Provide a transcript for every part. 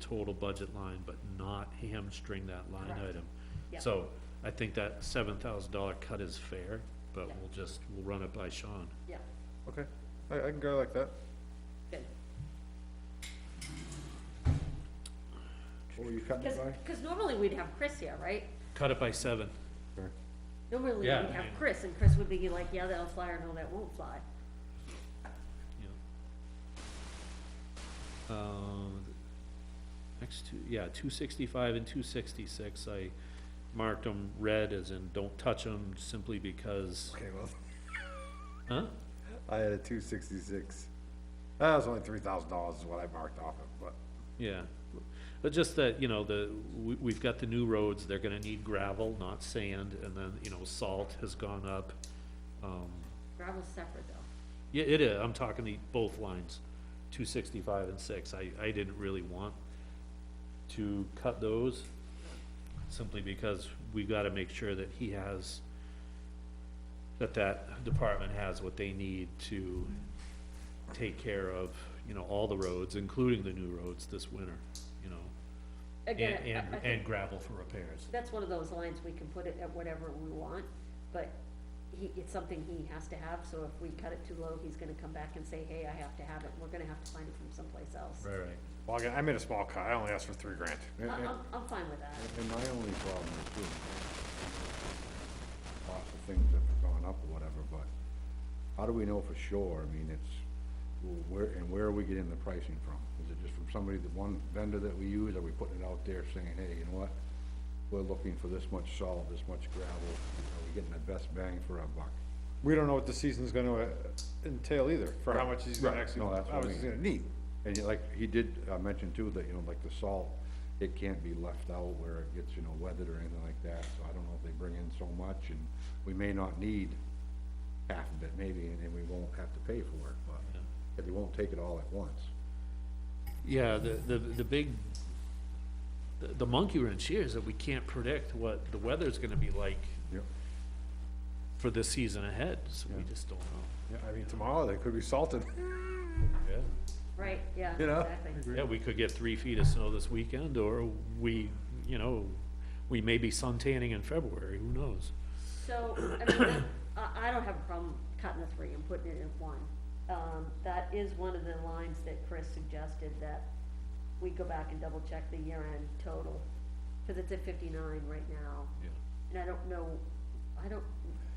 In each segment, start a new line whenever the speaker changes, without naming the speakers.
total budget line, but not hamstring that line
Correct.
item.
Yeah.
So I think that seven thousand dollar cut is fair, but
Yeah.
we'll just, we'll run it by Sean.
Yeah,
Okay, I, I can go like that.
good.
What were you cutting
Because,
it by?
because normally we'd have Chris here, right?
Cut it by seven.
Normally we'd
Yeah,
have
yeah.
Chris, and Chris would be like, yeah, that'll fly, or no, that won't fly.
Yeah. Um, next two, yeah, two sixty-five and two sixty-six, I marked them red as in don't touch them simply because,
Okay, well,
huh?
I had a two sixty-six. That was only three thousand dollars is what I marked off of, but
Yeah, but just that, you know, the, we, we've got the new roads, they're gonna need gravel, not sand, and then, you know, salt has gone up. Um,
Gravel's separate though.
yeah, it is, I'm talking the, both lines, two sixty-five and six, I, I didn't really want to cut those, simply because we gotta make sure that he has, that that department has what they need to take care of, you know, all the roads, including the new roads this winter, you know?
Again,
And,
I-
and,
I think
and gravel for repairs.
that's one of those lines, we can put it at whatever we want, but he, it's something he has to have, so if we cut it too low, he's gonna come back and say, hey, I have to have it, we're gonna have to find it from someplace else.
Right, right.
Well, again, I made a small cut, I only asked for three grand.
And,
I-
and-
I'm, I'm fine with that.
and my only problem is too. Lots of things have gone up or whatever, but how do we know for sure? I mean, it's, well, where, and where are we getting the pricing from? Is it just from somebody, the one vendor that we use? Are we putting it out there saying, hey, you know what? We're looking for this much salt, this much gravel, are we getting the best bang for our buck?
We don't know what the season's gonna uh, entail either, for how much he's gonna
Right,
actually,
no, that's what I
how much he's
mean.
gonna need.
And you- like, he did, uh, mention too, that, you know, like the salt, it can't be left out where it gets, you know, weathered or anything like that, so I don't know if they bring in so much, and we may not need half of it, maybe, and then we won't have to pay for it, but, if they won't take it all at once.
Yeah, the, the, the big, the- the monkey wrench here is that we can't predict what the weather's gonna be like
Yep.
for the season ahead, so we just don't know.
Yeah, I mean, tomorrow they could be salted.
Yeah.
Right, yeah,
You know?
exactly.
Yeah, we could get three feet of snow this weekend, or we, you know, we may be sun tanning in February, who knows?
So, I mean, that- I, I don't have a problem cutting the three and putting it in one. Um, that is one of the lines that Chris suggested that we go back and double check the year end total, cause it's at fifty-nine right now.
Yeah.
And I don't know, I don't,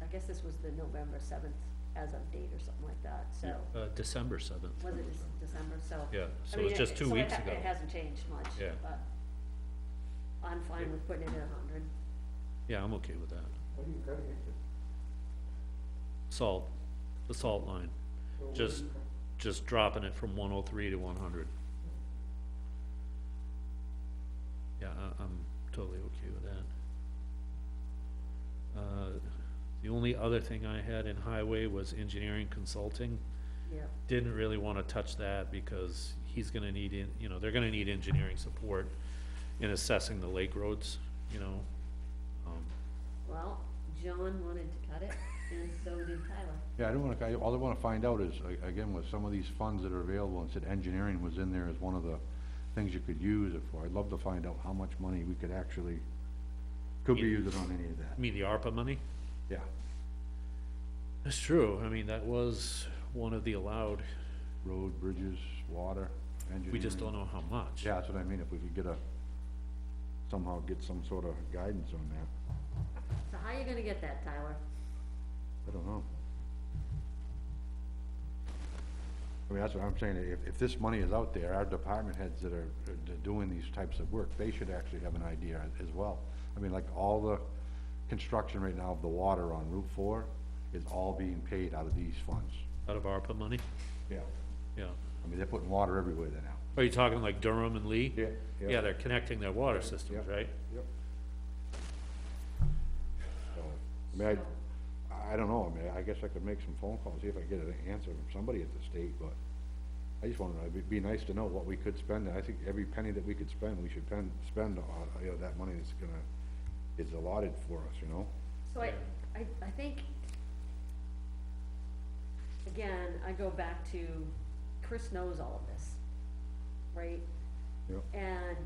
I guess this was the November seventh as of date or something like that, so,
Uh, December seventh.
was it Dec- December, so.
Yeah,
I
so
mean,
it's just
it-
two
so it
weeks
ha-
ago.
It hasn't changed much,
Yeah.
but I'm fine with putting it at hundred.
Yeah, I'm okay with that. Salt, the salt line, just, just dropping it from one oh three to one hundred. Yeah, I, I'm totally okay with that. Uh, the only other thing I had in highway was engineering consulting.
Yeah,
Didn't really wanna touch that because he's gonna need, en- you know, they're gonna need engineering support in assessing the lake roads, you know? Um,
well, John wanted to cut it, and so did Tyler.
Yeah, I don't wanna, I, all I wanna find out is, a- again, with some of these funds that are available, and said engineering was in there as one of the things you could use it for, I'd love to find out how much money we could actually, could be using on any of that,
You mean the ARPA money?
yeah,
That's true, I mean, that was one of the allowed,
road, bridges, water, engineering.
we just don't know how much.
Mm-hmm. Yeah, that's what I mean, if we could get a, somehow get some sort of guidance on that,
So how you gonna get that, Tyler?
I don't know. I mean, that's what I'm saying, if, if this money is out there, our department heads that are, are doing these types of work, they should actually have an idea as well. I mean, like, all the construction right now of the water on Route Four is all being paid out of these funds.
Out of ARPA money,
Yeah.
yeah.
I mean, they're putting water everywhere there now.
Are you talking like Durham and Lee?
Yeah, yeah.
Yeah, they're connecting their water systems,
Yeah.
right?
Yep. So, I mean, I, I don't know, I mean, I guess I could make some phone calls, see if I get an answer from somebody at the state, but I just wanna know, it'd be nice to know what we could spend, and I think every penny that we could spend, we should pen, spend, on, you know, that money that's gonna, is allotted for us, you know?
So I, I, I think, again, I go back to, Chris knows all of this, right?
Yep.
And